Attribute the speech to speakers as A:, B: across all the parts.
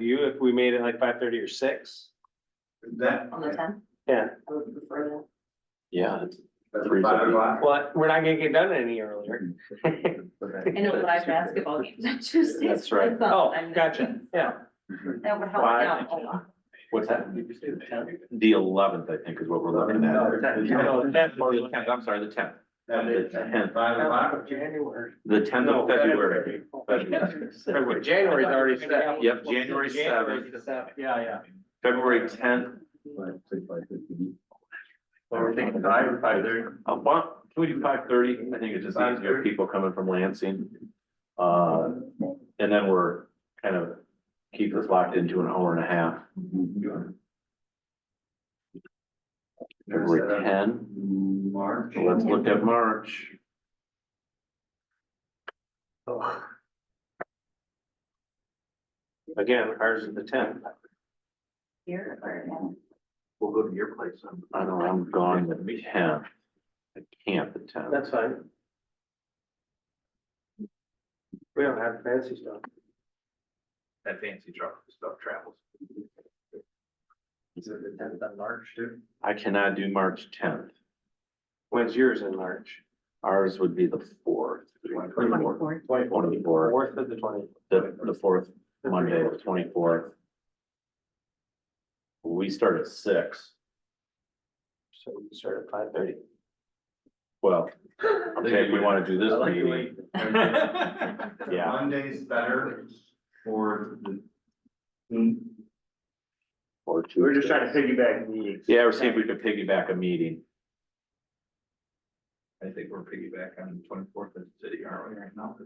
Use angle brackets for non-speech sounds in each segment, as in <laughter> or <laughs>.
A: you if we made it like five thirty or six?
B: That.
C: on the tenth.
A: Yeah.
C: I would prefer that.
D: Yeah,
B: That's five o'clock.
A: Well, we're not gonna get done any earlier.
C: <laughs> I know live basketball games on Tuesdays.
D: That's right.
C: That's all
A: Oh,
C: I'm-
A: gotcha, yeah.
C: That would help me out a lot.
D: what's that? The eleventh, I think, is what we're looking
B: No,
D: at.
B: the 10th.
D: No, the 10th, or the 10th, I'm sorry, the tenth,
B: That is ten, five o'clock.
A: January.
D: the tenth
A: No,
D: of February. February.
A: February, January's already set.
D: Yep, January
A: January's
D: seventh.
A: the Yeah, yeah.
D: February tenth,
B: Or think five, five thirty.
D: uh, well, can we do five thirty? I think it's just easier, people coming from Lansing. Uh, and then we're kind of keep this locked into an hour and a half. February ten,
B: March.
D: so let's look at March.
A: Again, ours is the tenth.
C: Here or
D: We'll go to your place. I know, I'm gone the tenth. I can't the tenth.
A: That's fine. We don't have fancy stuff.
B: That fancy truck stuff travels. Is it the tenth of March too?
D: I cannot do March tenth.
A: When's yours in March?
D: Ours would be the fourth.
C: twenty-fourth.
D: Twenty-fourth,
A: Fourth of the twentieth.
D: the, the fourth Monday, the twenty-fourth. We start at six.
A: So we start at five thirty.
D: Well, okay, if we want to do this
B: I like the way-
D: meeting, Yeah.
B: Monday's better for the. Mm,
D: or two.
E: We're just trying to piggyback meetings.
D: Yeah, or see if we could piggyback a meeting.
B: I think we're piggyback on the twenty-fourth of the city, aren't we, right now?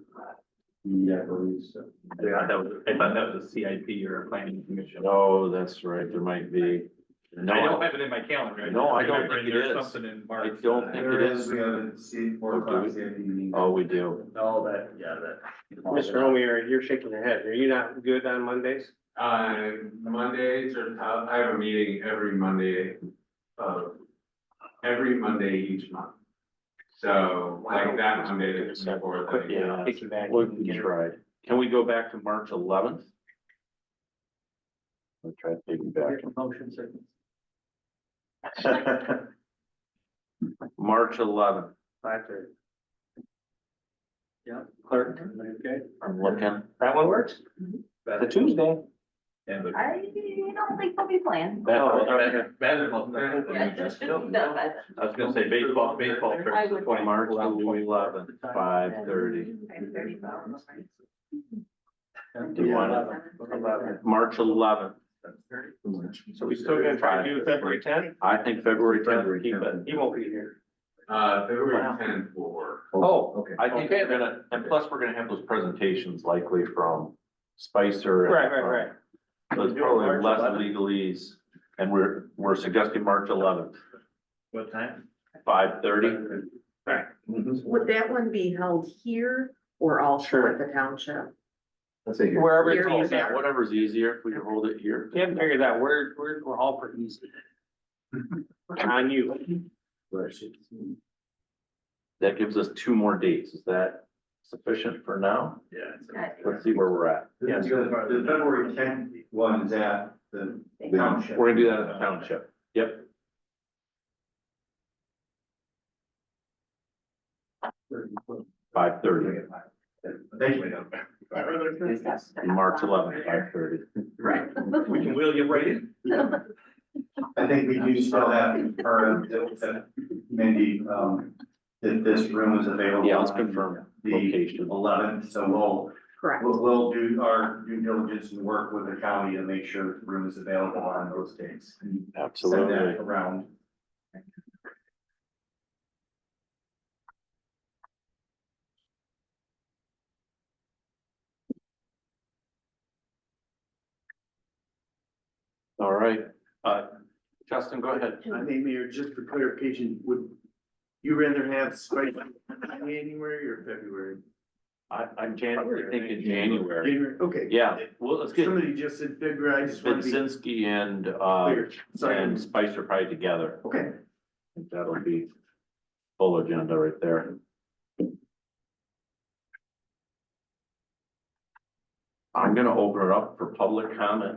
B: Yeah, I believe so. I thought that was, I thought that was a CIP or a planning commission.
D: Oh, that's right, there might be. No,
B: I don't have it in my calendar.
D: No, I don't
B: remember
D: think it
B: there's
D: is.
B: Something in March.
D: I don't think-
E: There is, we have a C four
D: Oh, do we?
E: o'clock CIP meeting.
D: Oh, we do.
E: All that, yeah, that.
A: Mr. Omier, you're shaking your head. Are you not good on Mondays?
F: Uh, Mondays or, I have a meeting every Monday of, every Monday each month. So like that Monday, the twenty-fourth, I think.
D: Yeah.
A: Take you back.
D: We tried. Can we go back to March eleventh? We'll try to piggyback. <laughs> March eleventh,
A: Five thirty. Yeah, clerk, okay.
D: I'm looking.
A: That one works? The Tuesday.
B: And the-
C: I don't think they'll be playing.
A: Oh,
E: Oh,
C: Yeah, it should be done by then.
D: I was gonna say baseball, baseball.
C: fair. I would-
D: March eleventh, five thirty.
C: Five thirty, about
D: Do you want
C: eleven.
D: it? March eleventh.
A: So we still gonna try to do February tenth?
D: I think February tenth,
E: February
D: keep it.
E: 10th.
A: He won't be here.
F: Uh,
D: Wow.
F: February tenth will work.
A: Oh,
E: Okay.
D: I think we're gonna, and plus we're gonna have those presentations likely from Spicer. and
A: right, right,
D: from-
A: right.
D: So it's
E: Do it March
D: probably less
E: 11th.
D: legalese, and we're, we're suggesting March eleventh,
E: What time?
D: five thirty.
G: Would that one be held here or also
A: Sure.
G: at the township?
E: Let's say
A: Wherever
G: Here you
A: it's
G: go.
A: at.
D: Whatever's easier, if we can hold it here.
A: Can't figure that. We're, we're, we're all pretty <laughs> easy. On you.
D: That gives us two more dates. Is that sufficient for now? Let's see where we're at.
B: Yeah.
E: The the February tenth one is at the township.
D: We're gonna do that in the township. Yep. Five thirty,
E: Thank you.
D: March eleventh, five thirty.
C: Right.
B: We can wheel you right in.
E: I think we do still have, or uh, maybe, um, that this room is available.
D: Yeah, let's confirm
E: The
D: location.
E: eleventh, so we'll,
G: Correct.
E: we'll, we'll do our due diligence and work with the county to make sure the room is available on those dates. Send
D: Absolutely.
E: that around.
D: All right. Uh, Justin, go ahead.
H: I think, Mayor, just for clarification, would you rather have spring January or February?
D: I, I'm January, I think in January.
H: January, okay.
D: Yeah, well, let's get
H: Somebody just said February, I just want to be
D: Vinzinski and, uh,
H: clear.
D: and
H: Sorry.
D: Spicer probably together.
H: Okay.
D: I think That'll be full agenda right there. I'm gonna open it up for public comment